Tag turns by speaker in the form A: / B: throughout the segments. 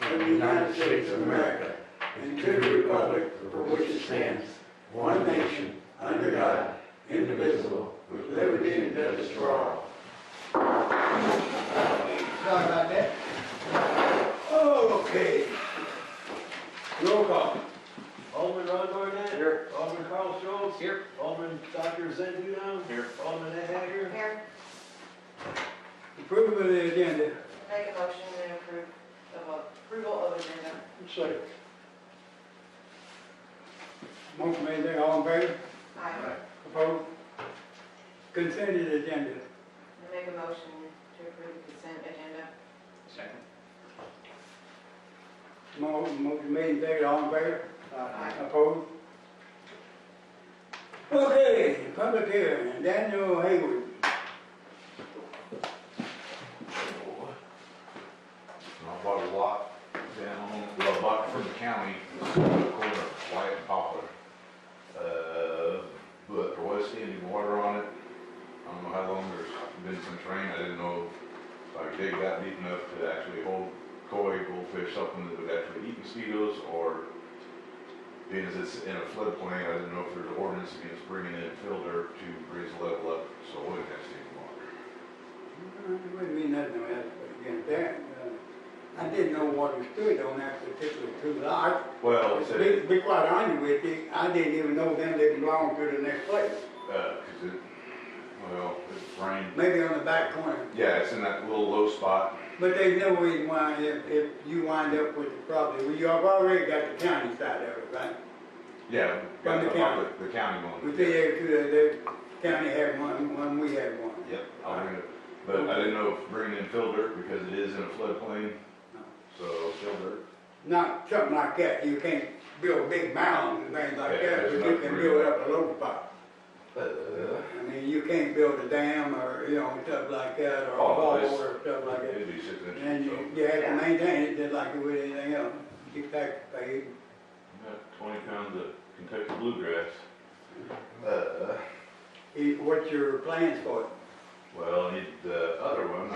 A: United States of America and to the republic for which it stands, one nation, under God, indivisible, with liberty and justice for all.
B: Sorry about that.
A: Okay. Roll call.
B: Alderman Ron Barnett.
A: Here.
B: Alderman Carl Schultz. Here. Alderman Dr. Zed Duda. Here. Alderman Ed Hager.
C: Mayor,
A: Approval of the agenda.
C: make a motion to approve of approval of agenda.
A: Second. Motion made there, all in favor?
C: Aye.
A: Opposed? Consented agenda.
C: Make a motion to approve consent agenda.
D: Second.
A: Mo- Motion made there, all in favor?
C: Aye.
A: Opposed? Okay, public hearing, Daniel Hayward.
E: And I bought a lot down, well, I bought it from the county, the corner of White and Poplar. Uh, but there was any water on it. I don't know how long there's been since rain. I didn't know if I could dig that deep enough to actually hold koi, goldfish, something that would actually eat mosquitoes or being as it's in a floodplain, I didn't know if there's an ordinance against bringing in filter to raise the level up, so it wouldn't have any water.
A: It wouldn't mean nothing to us, but again, there, uh, I didn't know water stood on that particular two I
E: Well, it said-
A: Be, be quite honest with you, I didn't even know them didn't belong to the next place,
E: Uh, 'cause it, well, it's rained.
A: maybe on the back corner.
E: Yeah, it's in that little low spot.
A: But there's no reason why if, if you wind up with the property, well, you've already got the county side of it, right?
E: Yeah.
A: From the county.
E: The county one.
A: We say every two, the, uh, the county had one, one, we had one.
E: Yep, I'll bring it. But I didn't know if bringing in fill dirt because it is in a floodplain. So fill dirt.
A: Not something like that, you can't build big mounds and things like
E: Yeah,
A: that,
E: there's
A: but you
E: nothing
A: can
E: really
A: build
E: like
A: up a low spot.
E: Uh,
A: I mean, you can't build a dam or, you know, stuff like that, or a
E: Oh,
A: wall
E: it's-
A: or stuff like that.
E: It'd be six
A: And
E: inches, so.
A: you, you have to maintain it just like you would anything else, get tax paid.
E: Got Twenty pounds of Kentucky bluegrass. Uh,
A: Eh, What's your plans for it?
E: well, I need the other one.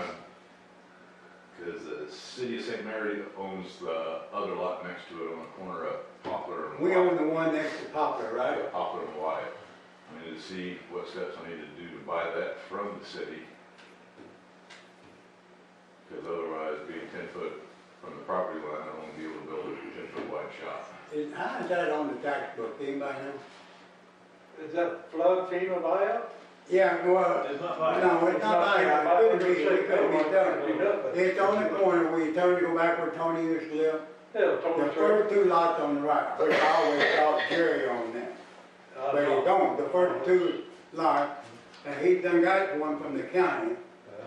E: Because the city of St. Mary owns the other lot next to it on the corner of Poplar and.
A: We
E: Wyatt.
A: own the one next to Poplar, right?
E: I Poplar and Wyatt. I need to see what steps I need to do to buy that from the city. Because otherwise, being ten foot from the property line, I won't be able to build a ten foot wide shop.
A: Is, how is that on the tax book, anybody know?
F: Is that flood FEMA buyout?
A: Yeah, well,
B: It's not mine.
A: no, it's not like, that. it couldn't be, it couldn't be done. It's on the corner where you turn to go back where Tony used to live.
F: Yeah,
A: The
F: Tony Trump.
A: first two lots on the right, which I always thought Jerry owned them,
F: I
A: but he
F: know.
A: don't, the first two lots, and he done got one from the county.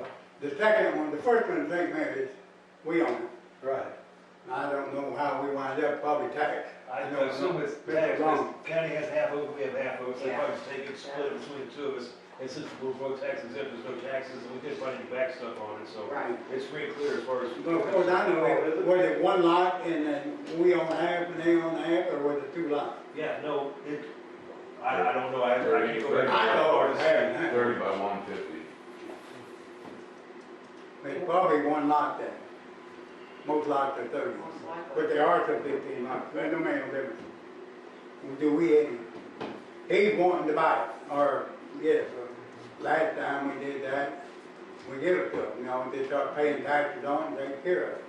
F: Yeah,
A: The second one, the first one, St. Mary's, we own it.
F: Right.
A: I don't know how we wind up, probably tax.
B: I
A: don't
B: assume it's
A: Been
B: taxed,
A: wrong.
B: county has half over, we have half over, so they
C: Yeah.
B: probably take it, split it between the two of us. And since we're both tax exempt, there's no taxes, and we just try to back stuff on it, so
C: Right.
B: it's pretty clear as far as.
A: But of course, I know, it- was it one lot and then we own half and they own half, or was it two lots?
B: Yeah, no, it, I, I don't know, I, I can't go. back and-
A: I know it was half and half.
E: Thirty by one fifty.
A: It's probably one lot then. Most lots are thirty.
C: Most likely.
A: But there are some fifteen lots, but no man will ever. Do we, any- he's wanting to buy it, or, yes, uh, last time we did that, we gave it to him, you know, they start paying taxes on it, and take care of it.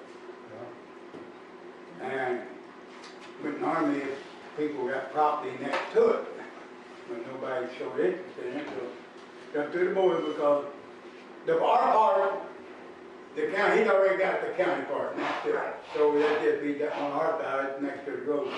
A: And, but normally, if people got property next to it, but nobody showed interest in it, so, come to the board because the, our part, the county, he's already got the county part next to it, so that just be that on our side, next to the road.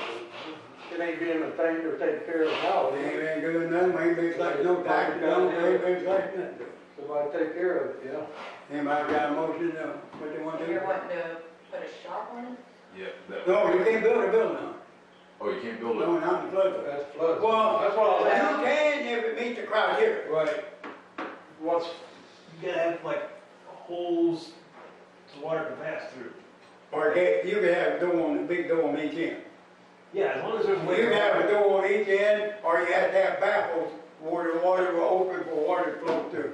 F: It ain't being a thing to take care of now.
A: They ain't been doing nothing, ain't been collecting no taxes, no, Oh, ain't been collecting nothing.
F: Somebody take care of it, yeah.
A: Anybody got a motion, uh, what they want to do?
C: You're wanting to put a shop on it?
E: Yep. that-
A: No, you can't build a building on it,
E: Oh, you can't build
A: no,
E: it?
A: not in flood.
F: That's flood.
A: Well,
F: That's what I was asking.
A: You can if it meets the criteria.
B: Right,
F: What's,
B: you gotta have like holes to water can pass through.
A: Or get, you could have a door on, a big door on each end.
B: Yeah, as long as there's a
A: You
B: way.
A: could
B: to-
A: have a door on each end, or you have to have baffles where the water will open for water to flow through.